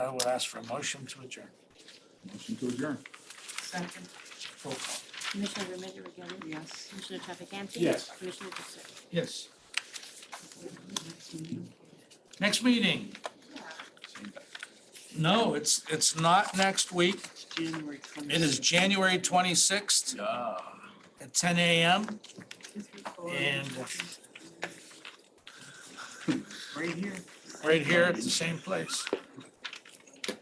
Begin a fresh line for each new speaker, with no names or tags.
would ask for a motion to adjourn.
Motion to adjourn.
Second,
Roll call.
Commissioner Remedy Agati?
yes.
Commissioner Trafficante?
Yes.
Commissioner Casey?
Yes. Next meeting? No, it's, it's not next week.
January twenty.
It is January 26th at 10 a.m. and-
Right here.
right here at the same place.